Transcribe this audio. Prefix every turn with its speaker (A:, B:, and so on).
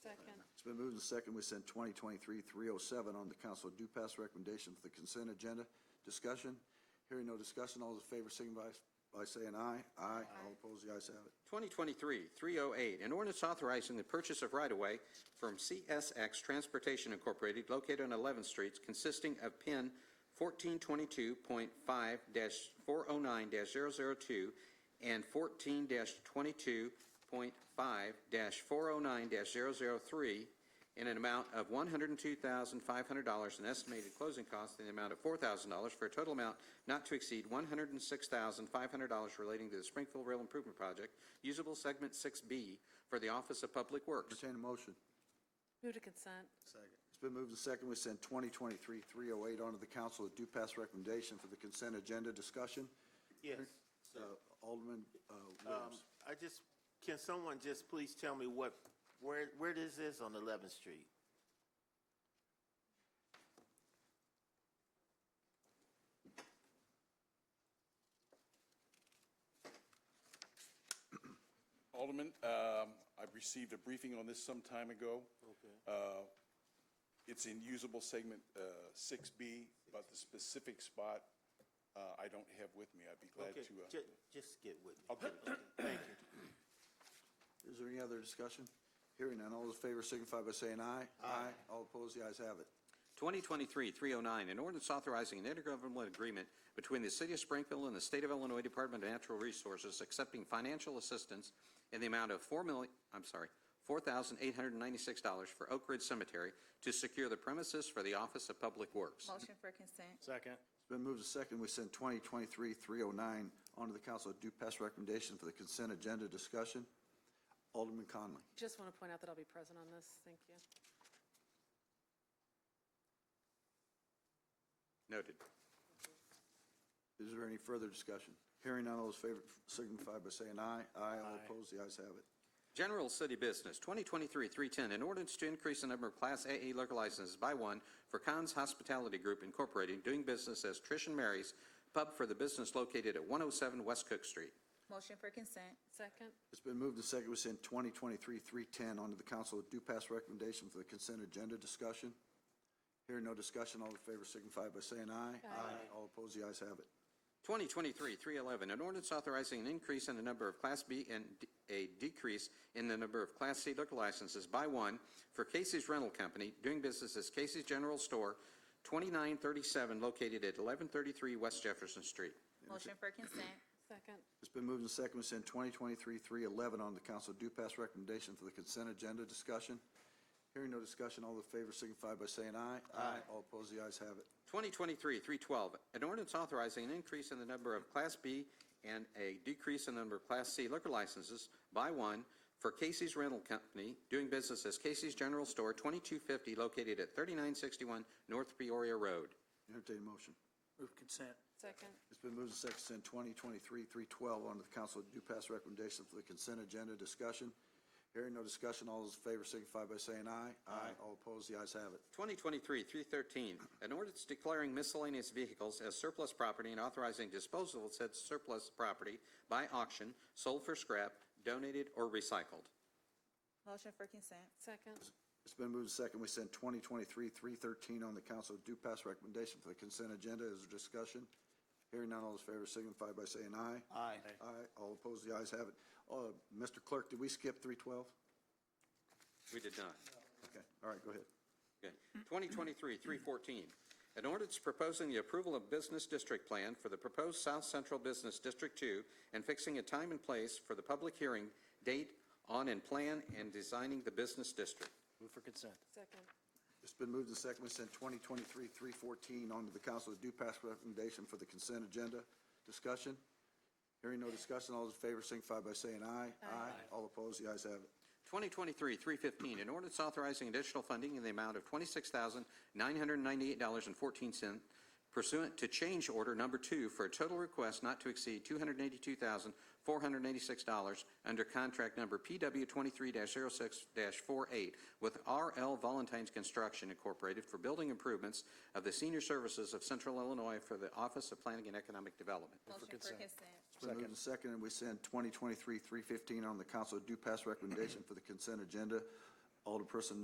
A: It's been moved and second, we send 2023-307 on the council due pass recommendation for the consent agenda. Discussion? Hearing no discussion, all those in favor signify by saying aye. Aye. All opposed, the ayes have it.
B: 2023-308, an ordinance authorizing the purchase of right-of-way from CSX Transportation Incorporated located on 11th Street consisting of PIN 1422.5-409-002 and 14-22.5-409-003 in an amount of $102,500 and estimated closing costs in the amount of $4,000 for a total amount not to exceed $106,500 relating to the Springfield Rail Improvement Project, usable segment 6B for the Office of Public Works.
A: Entertain a motion.
C: Move to consent.
A: It's been moved and second, we send 2023-308 on to the council with due pass recommendation for the consent agenda. Discussion?
D: Yes.
A: Uh, Alderman uh,
D: Um,
A: Williams.
D: I just, can someone just please tell me what, where, where this is on 11th Street?
E: Alderman, um, I received a briefing on this some time ago.
D: Okay.
E: Uh, It's in usable segment uh, 6B, but the specific spot uh, I don't have with me. I'd be glad
D: Okay,
E: to, uh,
D: ju- just get with me.
E: I'll give it to you.
D: Thank you.
A: Is there any other discussion? Hearing none, all those in favor signify by saying aye. Aye. All opposed, the ayes have it.
B: 2023-309, an ordinance authorizing an intergovernmental agreement between the City of Springfield and the State of Illinois Department of Natural Resources accepting financial assistance in the amount of 4 million, I'm sorry, $4,896 for Oak Ridge Cemetery to secure the premises for the Office of Public Works.
F: Motion for consent.
D: Second.
A: It's been moved to second, we send 2023-309 on to oh the council with due pass recommendation for the consent agenda. Discussion? Alderman Conley.
C: Just want to point out that I'll be present on this. Thank you.
B: Noted.
A: Is there any further discussion? Hearing none, all those in favor signify by saying aye. Aye. All opposed, the ayes have it.
B: General City Business, 2023-310, an ordinance to increase the number of Class AA liquor licenses by one for Con's Hospitality Group Incorporated, doing business as Trish and Mary's Pub for the business located at 107 West Cook Street.
F: Motion for consent.
C: Second,
A: It's been moved to second, we send 2023-310 on to the council with due pass recommendation for the consent agenda. Discussion? Hearing no discussion, all in favor signify by saying aye. Aye. All opposed, the ayes have it.
B: 2023-311, an ordinance authorizing an increase in the number of Class B and d- a decrease in the number of Class C liquor licenses by one for Casey's Rental Company, doing business as Casey's General Store, 2937, located at 1133 West Jefferson Street.
F: Motion for consent.
C: second,
A: It's been moved and second, we send 2023-311 on to the council due pass recommendation for the consent agenda. Discussion? Hearing no discussion, all in favor signify by saying aye. Aye. All opposed, the ayes have it.
B: 2023-312, an ordinance authorizing an increase in the number of Class B and a decrease in the number of Class C liquor licenses by one for Casey's Rental Company, doing business as Casey's General Store, 2250, located at 3961 North Peoria Road.
A: Entertain a motion.
G: Move consent.
C: second,
A: It's been moved and second, to send 2023-312 on to the council due pass recommendation for the consent agenda. Discussion? Hearing no discussion, all those in favor signify by saying aye. Aye. All opposed, the ayes have it.
B: 2023-313, an ordinance declaring miscellaneous vehicles as surplus property and authorizing disposal of said surplus property by auction, sold for scrap, donated, or recycled.
F: Motion for consent.
C: second,
A: It's been moved and second, we send 2023-313 on the council due pass recommendation for the consent agenda. Is there discussion? Hearing none, all those in favor signify by saying aye.
D: Aye.
A: Aye, all opposed, the ayes have it. Uh, Mr. Clerk, did we skip 312?
B: We did not.
A: Okay, all right, go ahead.
B: Okay. 2023-314, an ordinance proposing the approval of business district plan for the proposed South Central Business District 2 and fixing a time and place for the public hearing date on and plan and designing the business district.
G: Move for consent.
C: second,
A: It's been moved and second, we send 2023-314 on to the council with due pass recommendation for the consent agenda. Discussion? Hearing no discussion, all those in favor signify by saying aye. Aye. All opposed, the ayes have it.
B: 2023-315, an ordinance authorizing additional funding in the amount of $26,998.14 pursuant to change order number two for a total request not to exceed $282,486 under contract number PW23-06-48 with RL Valentine's Construction Incorporated for building improvements of the senior services of Central Illinois for the Office of Planning and Economic Development.
F: Motion for consent.
A: It's been moved and second, and we send 2023-315 on the council with due pass recommendation for the consent agenda. Alderperson